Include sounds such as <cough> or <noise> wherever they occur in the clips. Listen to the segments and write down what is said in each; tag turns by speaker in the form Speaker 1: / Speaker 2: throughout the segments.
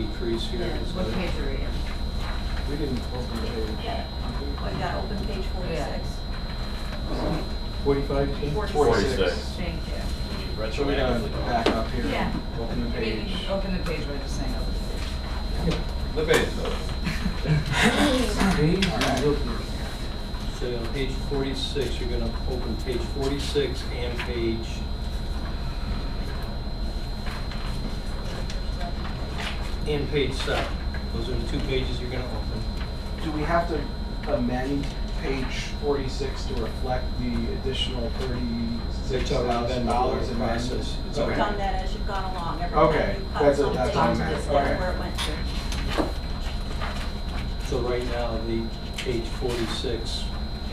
Speaker 1: decrease here.
Speaker 2: Yeah,
Speaker 1: is
Speaker 2: what
Speaker 1: that-
Speaker 2: page are you in?
Speaker 1: We didn't open the page.
Speaker 3: Well, you got open page forty-six.
Speaker 1: Forty-five, Jean?
Speaker 3: Forty-six.
Speaker 4: Forty-six.
Speaker 2: Thank you.
Speaker 1: So we gotta back up here.
Speaker 3: Yeah.
Speaker 1: Open the
Speaker 2: I mean,
Speaker 1: page.
Speaker 2: you can Open the page by just saying open the page.
Speaker 4: The base,
Speaker 1: So on page forty-six, you're gonna open page forty-six and page, and page seven. Those are the two pages you're gonna open.
Speaker 5: Do we have to amend page forty-six to reflect the additional thirty-six thousand dollars in
Speaker 1: Process.
Speaker 5: process?
Speaker 1: It's
Speaker 3: You've
Speaker 1: okay.
Speaker 3: done that as you've gone along. Every
Speaker 5: Okay,
Speaker 3: time you cut
Speaker 5: that's what-
Speaker 3: something,
Speaker 5: that's
Speaker 3: this
Speaker 5: what I meant. Okay.
Speaker 3: is where it went to.
Speaker 1: So right now, the page forty-six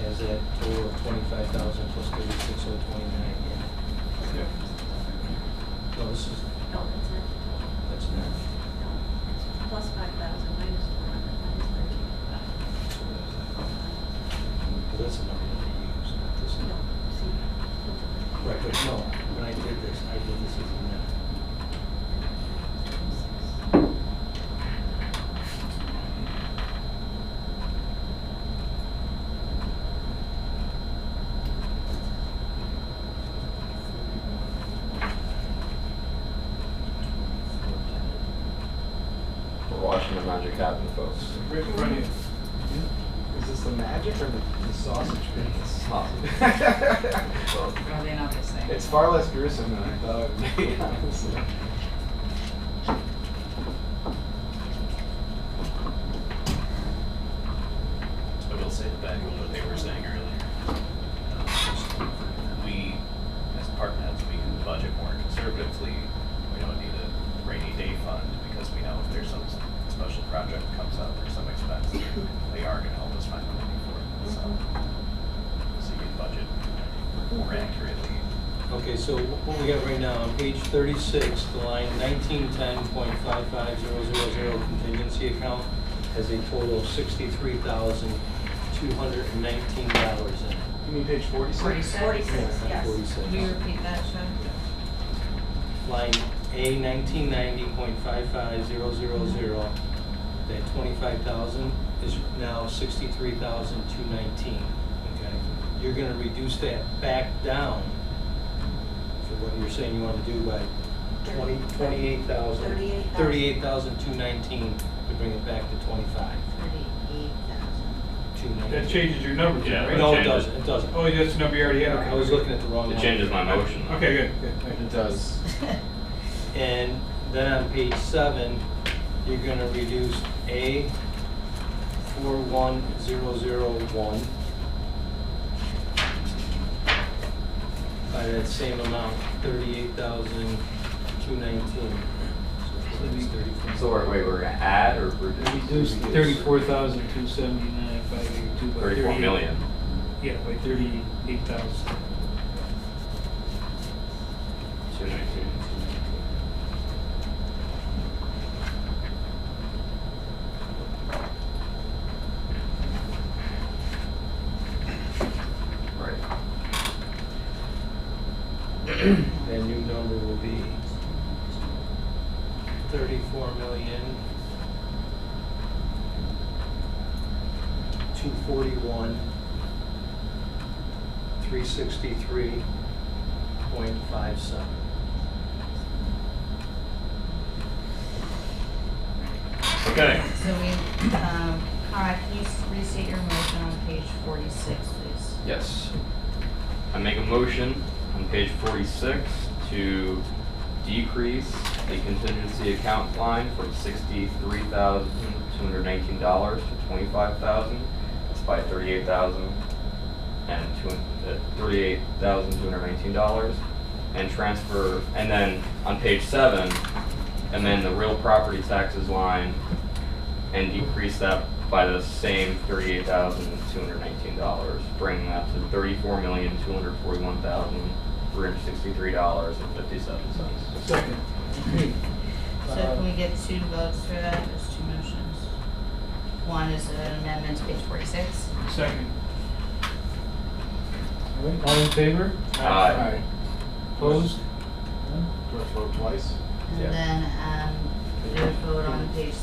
Speaker 1: has that total of twenty-five thousand plus thirty-six oh twenty-nine. No, this is,
Speaker 3: No, that's it.
Speaker 1: that's not.
Speaker 3: No, it's plus five thousand, minus four hundred, minus thirteen.
Speaker 1: Because that's the number that they use, not this
Speaker 3: No,
Speaker 1: number.
Speaker 3: see.
Speaker 1: Right, but no, when I did this, I did this as a net.
Speaker 4: We're watching the magic happen, folks.
Speaker 5: Rick, Ronnie, Is this the magic or the the sausage business?
Speaker 2: Are they not the same?
Speaker 5: <laughs> It's far less gruesome than I thought it would be, <laughs> honestly.
Speaker 6: I will say the back on what they were saying earlier. Um, We, as department heads, we can budget more conservatively. We don't need a rainy day fund because we know if there's some special project comes up or some expense, they are gonna help us find the money for it, so. So you can budget more accurately.
Speaker 1: Okay, so wh- what we got right now, on page thirty-six, the line nineteen ten point five five zero zero zero contingency account has a total of sixty-three thousand, two hundred and nineteen dollars in it.
Speaker 5: You mean page forty-six?
Speaker 2: Forty-six.
Speaker 3: Forty-six, yes.
Speaker 2: Can you
Speaker 1: Forty-six.
Speaker 2: repeat that,
Speaker 1: <laughs>
Speaker 2: Sean?
Speaker 1: Line A nineteen ninety point five five zero zero zero, that twenty-five thousand is now sixty-three thousand, two nineteen, okay? You're gonna reduce that back down for what you're saying you wanna do by Twenty, twenty-eight thousand.
Speaker 3: Thirty-eight thousand.
Speaker 1: Thirty-eight thousand, two nineteen, to bring it back to twenty-five,
Speaker 2: Thirty-eight thousand.
Speaker 1: two nineteen.
Speaker 7: That changes your number, Jim,
Speaker 4: Yeah,
Speaker 7: right?
Speaker 4: that
Speaker 1: No, it
Speaker 4: changes.
Speaker 1: doesn't, it doesn't.
Speaker 7: Oh, that's the number you already had, okay.
Speaker 1: I was looking at the wrong one.
Speaker 4: It changes my motion. though.
Speaker 7: Okay, good, good, thank you.
Speaker 5: It does.
Speaker 1: And then on page seven, you're gonna reduce A four one zero zero one by that same amount, thirty-eight thousand, two nineteen. So it's thirty-four.
Speaker 4: So wait, wait, we're gonna add or reduce?
Speaker 8: Reduced thirty-four thousand two seventy-nine, five eighty-two by thirty.
Speaker 4: Thirty-four million.
Speaker 8: Yeah, by thirty-eight thousand.
Speaker 4: Two nineteen. Right.
Speaker 1: <clears throat> That new number will be thirty-four million, two forty-one, three sixty-three point five seven.
Speaker 4: Okay.
Speaker 2: So we, um, Conrad, can you s- restate your motion on page forty-six, please?
Speaker 4: Yes. I make a motion on page forty-six to decrease the contingency account line from sixty-three thousand, two hundred nineteen dollars to twenty-five thousand. That's by thirty-eight thousand and two, uh, thirty-eight thousand, two hundred nineteen dollars. And transfer, and then on page seven, amend the real property taxes line and decrease that by the same thirty-eight thousand two hundred nineteen dollars, bringing that to thirty-four million two hundred forty-one thousand three hundred sixty-three dollars and fifty-seven cents.
Speaker 8: Second.
Speaker 2: So can we get two votes for that, there's two motions? One is an amendment to page forty-six,
Speaker 8: Second. All right, all in favor?
Speaker 4: Aye.
Speaker 8: Opposed?
Speaker 5: Do I vote twice?
Speaker 4: Yeah.
Speaker 2: and then, um, There's vote on page